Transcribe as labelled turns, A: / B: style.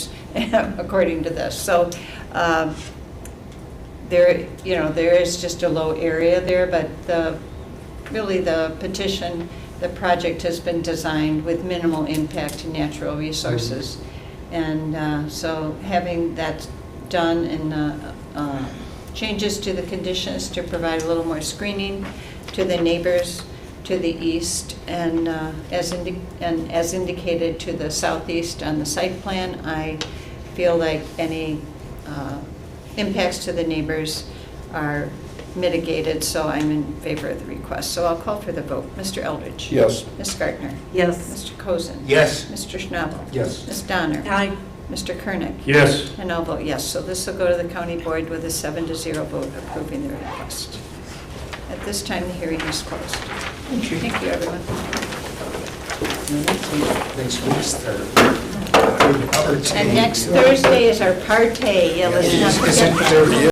A: according to this. So um, there, you know, there is just a low area there, but the, really the petition, the project has been designed with minimal impact to natural resources. And uh, so having that done and uh, uh, changes to the conditions to provide a little more screening to the neighbors to the east and uh, as, indi- and as indicated to the southeast on the site plan, I feel like any uh, impacts to the neighbors are mitigated, so I'm in favor of the request. So I'll call for the vote. Mr. Eldridge?
B: Yes.
A: Ms. Gardner?
C: Yes.
A: Mr. Cozen?
D: Yes.
A: Mr. Schnabel?
B: Yes.
A: Ms. Donner?
C: Aye.
A: Mr. Kernick?
B: Yes.
A: And I'll vote yes. So this will go to the county board with a seven to zero vote approving the request. At this time, the hearing is closed. Thank you, everyone.
D: Next week's the.
A: And next Thursday is our party. Yeah, let's not
D: Is
A: forget
D: it
A: that.
D: there?